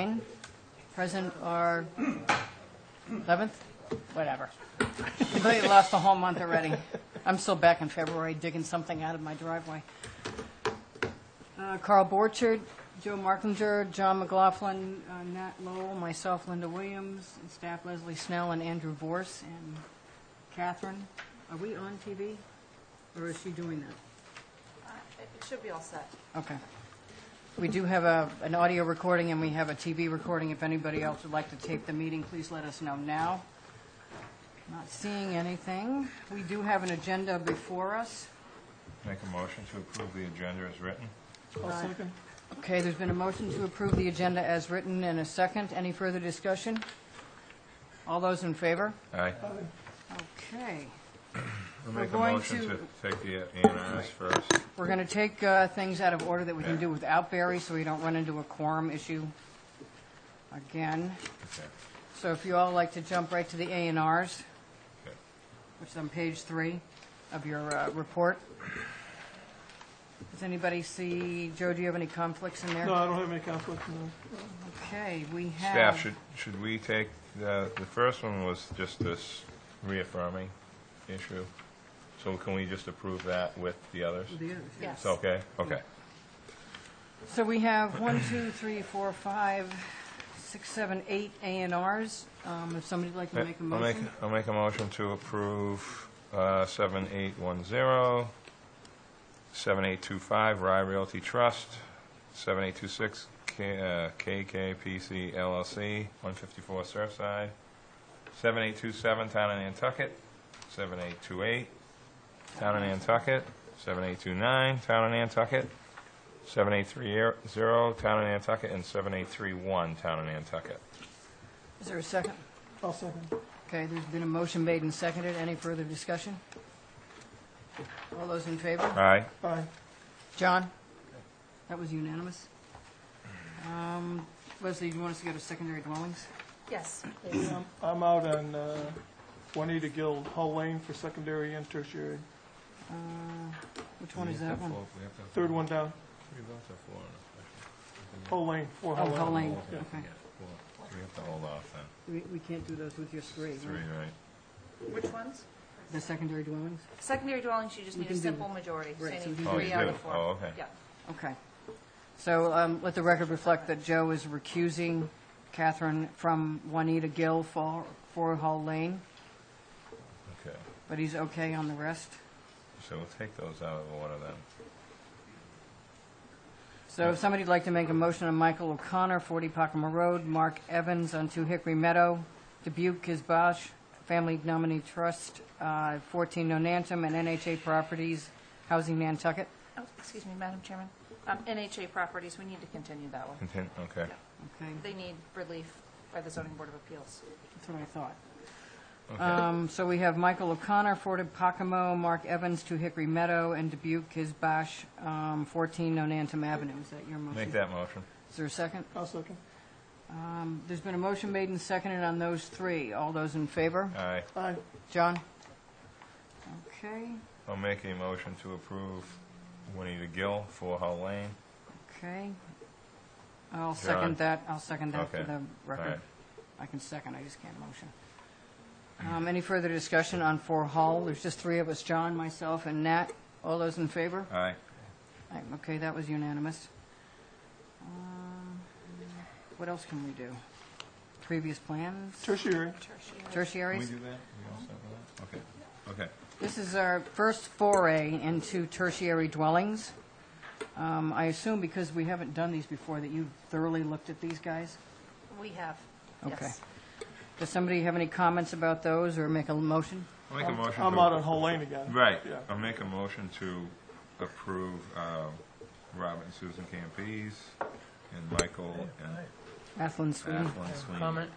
nine, present or 11th, whatever. Completely lost the whole month already. I'm still back in February digging something out of my driveway. Uh, Carl Borchard, Joe Markinger, John McLaughlin, uh, Nat Lowell, myself, Linda Williams, and staff Leslie Snell and Andrew Vorse and Catherine. Are we on TV? Or is she doing that? Uh, It should be all set. Okay. We do have a, an audio recording and we have a TV recording. If anybody else would like to tape the meeting, please let us know now. Not seeing anything. We do have an agenda before us. Make a motion to approve the agenda as written. Uh, Okay, there's been a motion to approve the agenda as written and a second. Any further discussion? All those in favor? Aye. Okay. I'll Uh, We're make a going motion to- to take the A and Rs first. We're going to take uh, things out of order that we can Yeah. do without Barry so we don't run into a quorum issue again. Okay. So if you all like to jump right to the A and Rs, Okay. which is on page three of your uh, report. Does anybody see, Joe, do you have any conflicts in there? No, I don't have any conflict, no. Okay, we have. Staff, should, should we take, the, the first one was just this reaffirming issue. So can we just approve that with the others? The others, yeah. Yes. It's okay? Okay. So we have one, two, three, four, five, six, seven, eight A and Rs. Um, If somebody'd like to make a Uh, I'll make, motion. I'll make a motion to approve uh, 7810, 7825 Rye Realty Trust, 7826 K- uh, KKPC LLC, 154 Surfside, 7827 Town of Nantucket, 7828 Town of Nantucket, 7829 Town of Nantucket, 7830 Town of Nantucket, and 7831 Town of Nantucket. Is there a second? I'll second. Okay, there's been a motion made and seconded. Any further discussion? All those in favor? Aye. Aye. John? That was unanimous. Um, Leslie, do you want us to go to secondary dwellings? Yes, please. I'm- I'm out on uh, Juanita Guild, Hull Lane for secondary and tertiary. Which one is that one? Third one down, Hull Lane, four Oh, Hull Hull Lane. Lane, Yeah, okay. We have to hold off then. We, we can't do those with your three, right? Three, right? Which ones? The secondary dwellings? Secondary dwellings, you just We need a can do- simple majority, so you Right, so we need can do- Oh, three you out do? of four. Oh, okay. Yeah, Okay. So, um, let the record reflect that Joe is recusing Catherine from Juanita Gill for, for Hall Lane, Okay. but he's okay on the rest. So we'll take those out of order then. So if somebody'd like to make a motion on Michael O'Connor, 40 Pacoma Road, Mark Evans on 2 Hickory Meadow, Dubuque Kizbosh Family Nominee Trust, uh, 14 Nonantum, and NHA Properties, Housing Nantucket. oh, excuse me, Madam Chairman. Um, NHA properties, we need to continue that one. Contin- okay. Okay, They need relief by the zoning board of appeals. that's what I thought. Uh, Okay. Um, So we have Michael O'Connor, Fort of Pocomo, Mark Evans, Two Hickory Meadow, and Dubuque, Kizbosh, um, 14 Nonantum Avenue. Is that your motion? Make that motion. Is there a second? I'll second. Um, There's been a motion made and seconded on those three. All those in favor? Aye. Aye, John? Okay, I'll make a motion to approve Juanita Gill for Hull Lane. okay. I'll second that, I'll second that for Okay. the record. Alright. I can second, I just can't motion. Um, Any further discussion on Four Hall? There's just three of us, John, myself, and Nat. All those in favor? Aye. Aye, Okay, that was unanimous. Um, What else can we do? Previous plans, tertiary. Can we tertiaries? do that? We all set with that? Okay. Okay. This is our first foray into tertiary dwellings. Um, I assume because we haven't done these before that you thoroughly looked at these guys? We have, Okay. yes. Does somebody have any comments about those or make a motion? I'll make a motion. I'm to- out on Hull Lane again. Right. Yeah. I'll make a motion to approve um, Robert and Susan Campese and Michael and Athlon Sweeney? Athlon Sweeney. comment,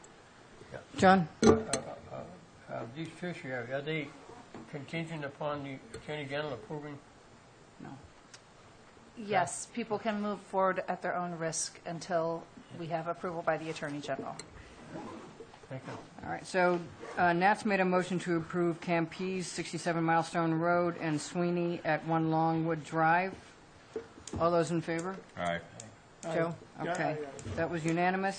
John? uh, these tertiary, are they contingent upon the Attorney General approving? No. Yes, people can move forward at their own risk until we have approval by the Attorney General. Thank you. All right, so uh, Nat's made a motion to approve Campese, 67 Milestone Road, and Sweeney at 1 Longwood Drive. All those in favor? Aye. Joe? Yeah, Okay. yeah, That was unanimous.